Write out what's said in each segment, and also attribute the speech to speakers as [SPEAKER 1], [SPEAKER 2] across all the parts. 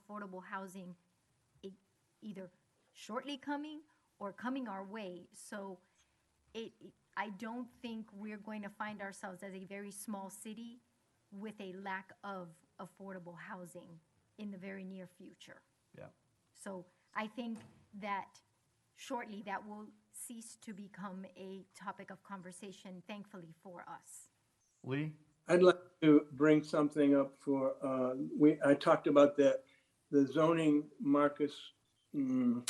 [SPEAKER 1] affordable housing e- either shortly coming or coming our way. So it, it- I don't think we're going to find ourselves as a very small city with a lack of affordable housing in the very near future.
[SPEAKER 2] Yeah.
[SPEAKER 1] So I think that shortly, that will cease to become a topic of conversation, thankfully for us.
[SPEAKER 2] Lee?
[SPEAKER 3] I'd like to bring something up for, uh, we, I talked about the, the zoning, Marcus. mm,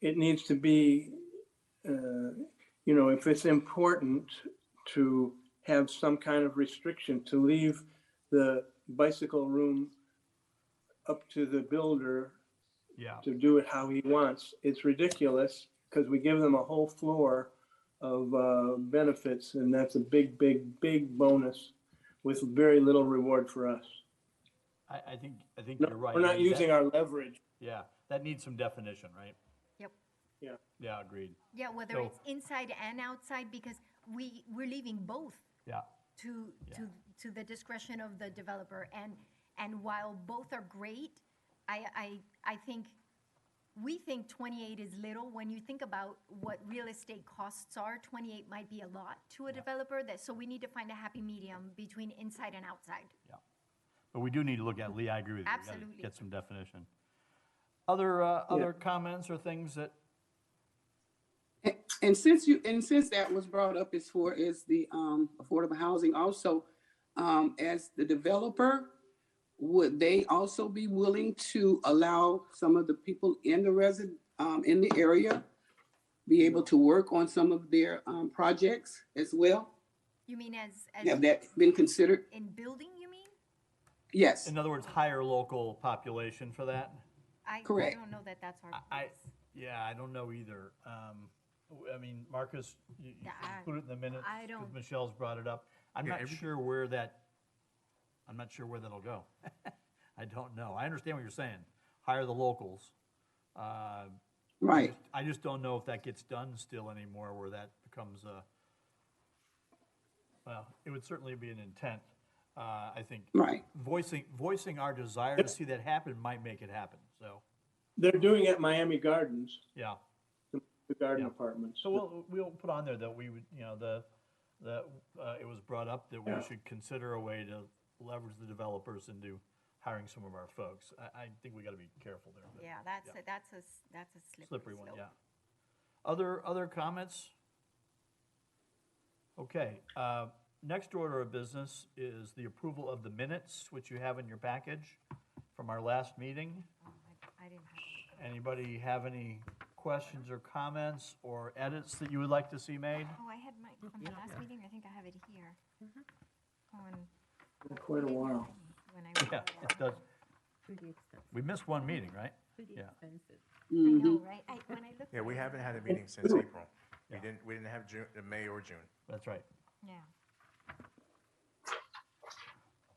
[SPEAKER 3] It needs to be, uh, you know, if it's important to have some kind of restriction, to leave the bicycle room up to the builder
[SPEAKER 2] Yeah.
[SPEAKER 3] to do it how he wants. It's ridiculous because we give them a whole floor of uh, benefits, and that's a big, big, big bonus with very little reward for us.
[SPEAKER 2] I, I think, I think
[SPEAKER 3] No,
[SPEAKER 2] you're right.
[SPEAKER 3] We're
[SPEAKER 2] I
[SPEAKER 3] not
[SPEAKER 2] mean, that-
[SPEAKER 3] using our leverage.
[SPEAKER 2] Yeah, that needs some definition, right?
[SPEAKER 1] Yep.
[SPEAKER 3] Yeah.
[SPEAKER 2] Yeah, agreed.
[SPEAKER 1] Yeah, whether
[SPEAKER 2] So-
[SPEAKER 1] it's inside and outside, because we, we're leaving both
[SPEAKER 2] Yeah,
[SPEAKER 1] to, to, to the discretion of the developer. And, and while both are great, I, I, I think, we think 28 is little. When you think about what real estate costs are, 28 might be a lot to a developer that, so we need to find a happy medium between inside and outside.
[SPEAKER 2] but we do need to look at, Lee, I agree with you. We gotta
[SPEAKER 1] Absolutely.
[SPEAKER 2] Get some definition. Other, uh, other comments or things that,
[SPEAKER 4] And- And since you, and since that was brought up as far as the um, affordable housing also, um, as the developer, would they also be willing to allow some of the people in the resident, um, in the area be able to work on some of their um, projects as well?
[SPEAKER 1] You mean as,
[SPEAKER 4] Have
[SPEAKER 1] as
[SPEAKER 4] that been considered?
[SPEAKER 1] in building, you mean?
[SPEAKER 4] Yes,
[SPEAKER 2] in other words, higher local population for that?
[SPEAKER 1] I I
[SPEAKER 4] Correct.
[SPEAKER 1] don't know that that's our
[SPEAKER 2] I,
[SPEAKER 1] place.
[SPEAKER 2] yeah, I don't know either. Um, w- I mean, Marcus, you, you
[SPEAKER 1] Yeah,
[SPEAKER 2] should
[SPEAKER 1] I-
[SPEAKER 2] include it in the minutes.
[SPEAKER 1] I
[SPEAKER 2] 'cause
[SPEAKER 1] don't-
[SPEAKER 2] Michelle's brought it up. I'm
[SPEAKER 5] Yeah,
[SPEAKER 2] not
[SPEAKER 5] every-
[SPEAKER 2] sure where that, I'm not sure where that'll go. I don't know. I understand what you're saying. Hire the locals. Uh, I
[SPEAKER 4] right.
[SPEAKER 2] just- I just don't know if that gets done still anymore where that becomes a, well, it would certainly be an intent. Uh, I think
[SPEAKER 4] Right.
[SPEAKER 2] voicing, voicing our desire to see that happen might make it happen. So,
[SPEAKER 3] They're doing it at Miami Gardens,
[SPEAKER 2] yeah.
[SPEAKER 3] the garden
[SPEAKER 2] Yeah.
[SPEAKER 3] apartments.
[SPEAKER 2] So we'll, we'll put on there that we would, you know, the, that, uh, it was brought up that we
[SPEAKER 3] Yeah.
[SPEAKER 2] should consider a way to leverage the developers into hiring some of our folks. I, I think we gotta be careful there. but
[SPEAKER 1] Yeah, that's,
[SPEAKER 2] yeah.
[SPEAKER 1] a- that's a, s- that's a slippery
[SPEAKER 2] Slippery one,
[SPEAKER 1] slope.
[SPEAKER 2] yeah. Other, other comments? Okay, uh, next order of business is the approval of the minutes, which you have in your package from our last meeting.
[SPEAKER 1] Oh, I- I didn't have it.
[SPEAKER 2] Anybody have any questions or comments or edits that you would like to see made?
[SPEAKER 1] Oh, I had my, from the last meeting, I think I have it here.
[SPEAKER 2] Mm-hmm.
[SPEAKER 1] On,
[SPEAKER 3] For Quite a while.
[SPEAKER 1] when I.
[SPEAKER 2] Yeah,
[SPEAKER 1] wrote
[SPEAKER 2] it does.
[SPEAKER 6] Pretty expensive,
[SPEAKER 2] We missed one meeting, right?
[SPEAKER 6] pretty
[SPEAKER 2] Yeah.
[SPEAKER 6] expensive.
[SPEAKER 1] I
[SPEAKER 4] Mhm.
[SPEAKER 1] know, right? I, when I looked.
[SPEAKER 5] Yeah,
[SPEAKER 1] at
[SPEAKER 5] we
[SPEAKER 1] it,
[SPEAKER 5] haven't had a
[SPEAKER 1] I'm
[SPEAKER 5] meeting since April. We
[SPEAKER 2] Yeah.
[SPEAKER 5] didn't, we didn't have June, uh, May or June.
[SPEAKER 2] That's right.
[SPEAKER 1] like, Yeah.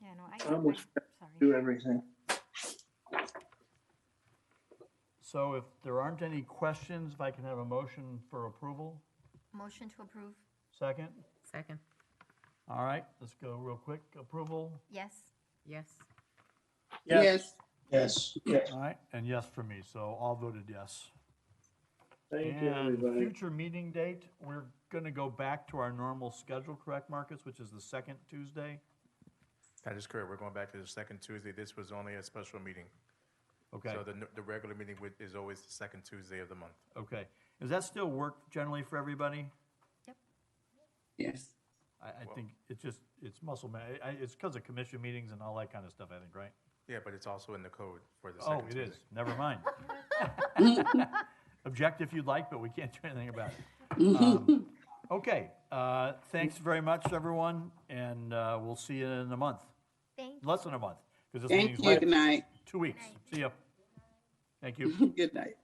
[SPEAKER 1] Yeah, no, I,
[SPEAKER 3] I almost
[SPEAKER 1] I,
[SPEAKER 3] Do
[SPEAKER 1] sorry.
[SPEAKER 3] everything.
[SPEAKER 2] So if there aren't any questions, if I can have a motion for approval,
[SPEAKER 1] Motion to approve,
[SPEAKER 2] second?
[SPEAKER 6] Second,
[SPEAKER 2] All right, let's go real quick. Approval,
[SPEAKER 1] yes.
[SPEAKER 6] yes.
[SPEAKER 4] Yes,
[SPEAKER 3] Yes. Yes.
[SPEAKER 2] all right, and yes for me, so all voted yes.
[SPEAKER 3] Thank you,
[SPEAKER 2] And
[SPEAKER 3] everybody.
[SPEAKER 2] Future meeting date, we're gonna go back to our normal schedule, correct, Marcus, which is the second Tuesday?
[SPEAKER 5] That is correct. We're going back to the second Tuesday. This was only a special meeting.
[SPEAKER 2] Okay,
[SPEAKER 5] So the, n- the regular meeting would- is always the second Tuesday of the month.
[SPEAKER 2] okay. Does that still work generally for everybody?
[SPEAKER 4] yes.
[SPEAKER 2] I, I think it's just, it's muscle memory. I, it's because of commission meetings and all that kind of stuff, I think, right?
[SPEAKER 5] Yeah, but it's also in the code for the
[SPEAKER 2] Oh,
[SPEAKER 5] second
[SPEAKER 2] it
[SPEAKER 5] Tuesday.
[SPEAKER 2] is. Never mind. Object if you'd like, but we can't do anything about it.
[SPEAKER 4] Mm-hmm.
[SPEAKER 2] Um, Okay, uh, thanks very much, everyone, and uh, we'll see you in a month,
[SPEAKER 1] Thank you.
[SPEAKER 2] less than a month, because this
[SPEAKER 4] Thank
[SPEAKER 2] meeting's
[SPEAKER 4] you. Good
[SPEAKER 2] like
[SPEAKER 4] night.
[SPEAKER 2] two weeks. See ya. Thank you.
[SPEAKER 4] Good night.